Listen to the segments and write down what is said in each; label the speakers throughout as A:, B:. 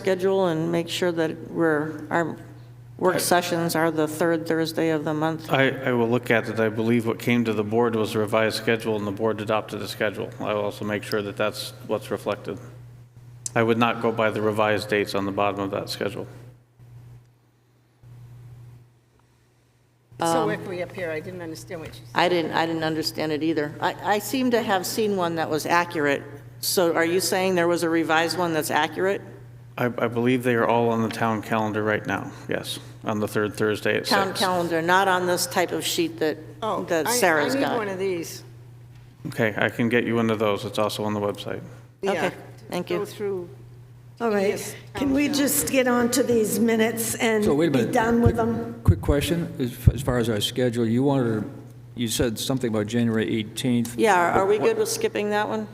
A: schedule and make sure that we're, our work sessions are the third Thursday of the month.
B: I, I will look at it. I believe what came to the board was a revised schedule, and the board adopted the schedule. I will also make sure that that's what's reflected. I would not go by the revised dates on the bottom of that schedule.
A: Um,
C: So where can we up here? I didn't understand what you said.
A: I didn't, I didn't understand it either. I, I seem to have seen one that was accurate. So are you saying there was a revised one that's accurate?
B: I, I believe they are all on the town calendar right now, yes, on the third Thursday at
A: Town
B: six.
A: calendar, not on this type of sheet that,
C: Oh,
A: that
C: I-
A: Sarah's
C: I need one
A: got.
C: of these.
B: Okay, I can get you one of those. It's also on the website.
C: Yeah,
A: Okay, thank
C: to
A: you.
C: Go through.
D: All right,
C: Yes.
D: can we just get on to these minutes and
E: So wait a
D: be
E: minute.
D: done with
E: Quick-
D: them?
E: Quick question, as f- as far as our schedule, you wanted, to- you said something about January 18th.
A: Yeah, are are we good with skipping that one?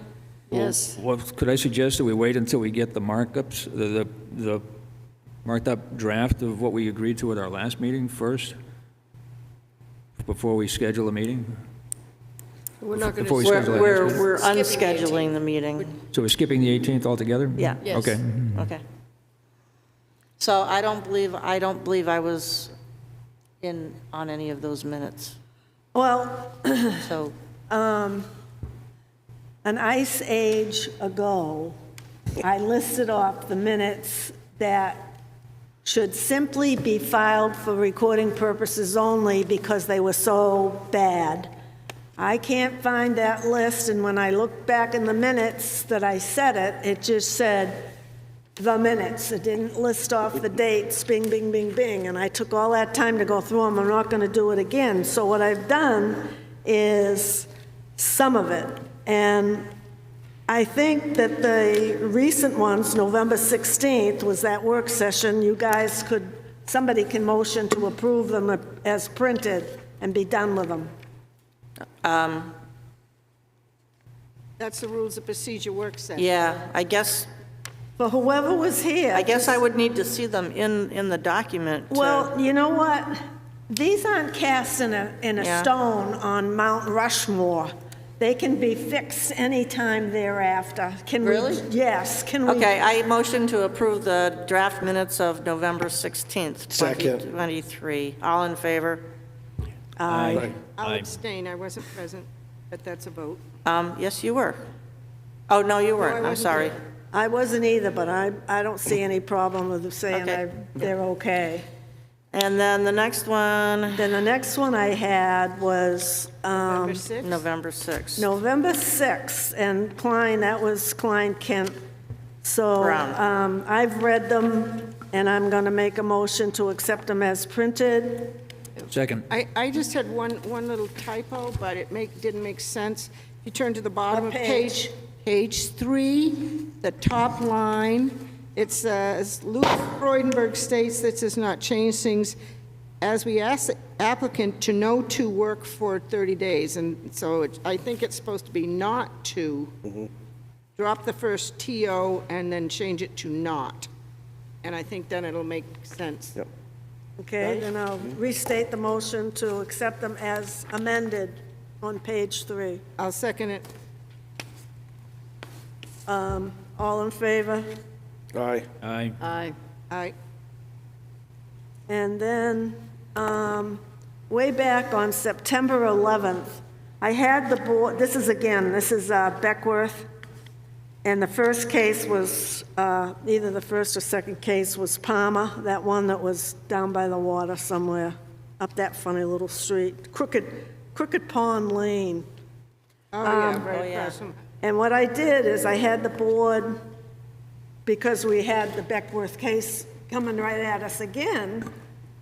C: Yes.
E: Well, Could I suggest that we wait until we get the markups, the- the the marked-up draft of what we agreed to at our last meeting first, before we schedule a meeting?
C: We're not going
E: Before we
C: to,
A: We're,
E: schedule it next
A: we're
E: meeting.
A: we're
C: Skipping the
A: unscheduling the meeting.
E: So we're skipping the 18th altogether?
A: Yeah.
C: Yes.
E: Okay.
C: Hmm.
A: Okay. So I don't believe, I don't believe I was in, on any of those minutes.
D: Well,
A: So
D: an ice age ago, I listed off the minutes that should simply be filed for recording purposes only because they were so bad. I can't find that list, and when I look back in the minutes that I said it, it just said the minutes. It didn't list off the dates, bing, bing, bing, bing, and I took all that time to go through them. I'm not going to do it again. So what I've done is some of it, and I think that the recent ones, November 16th, was that work session. You guys could, somebody can motion to approve them as printed and be done with them.
C: that's the rules of procedure work session.
A: Yeah, I guess,
D: But whoever was here.
A: I guess I would need to see them in, in the document. to-
D: Well, you know what? These aren't cast in a, in
A: Yeah.
D: a stone on Mount Rushmore. They can be fixed anytime thereafter. Can we-
A: Really?
D: Yes, can we?
A: Okay, I motion to approve the draft minutes of November 16th,
F: Second.
A: 2023. All in favor?
E: Aye.
C: I'll abstain, I wasn't present, but that's a vote.
A: Um, yes, you were. Oh, no, you
C: I
A: weren't, I'm
C: wasn't
A: sorry.
D: I wasn't either, but I, I don't see any problem with them saying
A: Okay.
D: I- they're okay.
A: And then the next one,
D: Then the next one I had was um,
C: Number six?
A: November 6th.
D: November 6th, and Klein, that was Klein Kent. So
A: Brown.
D: um, I've read them, and I'm going to make a motion to accept them as printed.
E: Second.
C: I, I just had one, one little typo, but it make, didn't make sense. If you turn to the bottom of
D: What
C: page, page three, the top line, it says, Luke Freudenberg states this does not change things as we ask the applicant to no to work for 30 days. And so it- I think it's supposed to be not to. Drop the first TO and then change it to not. And I think then it'll make sense.
F: Yep.
D: Okay, then I'll restate the motion to accept them as amended on page three.
C: I'll second it.
D: All in favor?
F: Aye.
E: Aye.
C: Aye. Aye.
D: And then, um, way back on September 11th, I had the board, this is again, this is uh, Beckworth, and the first case was, uh, either the first or second case was Palmer, that one that was down by the water somewhere, up that funny little street, Crooked, Crooked Pond Lane.
C: Oh, yeah, right across from.
D: And what I did is I had the board, because we had the Beckworth case coming right at us again,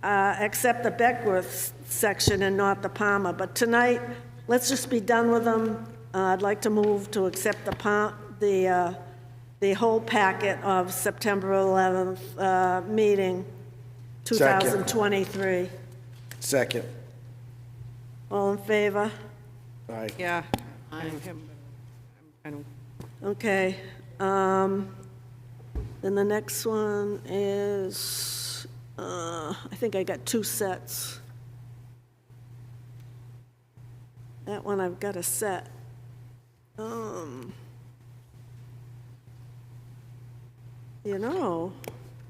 D: uh, accept the Beckworth section and not the Palmer. But tonight, let's just be done with them. Uh, I'd like to move to accept the Pa, the, uh, the whole packet of September 11th uh, meeting, 2023.
F: Second.
D: All in favor?
F: Aye.
C: Yeah. I am- I don't,
D: Okay. um, Then the next one is, uh, I think I got two sets. That one I've got a set. Um, You know,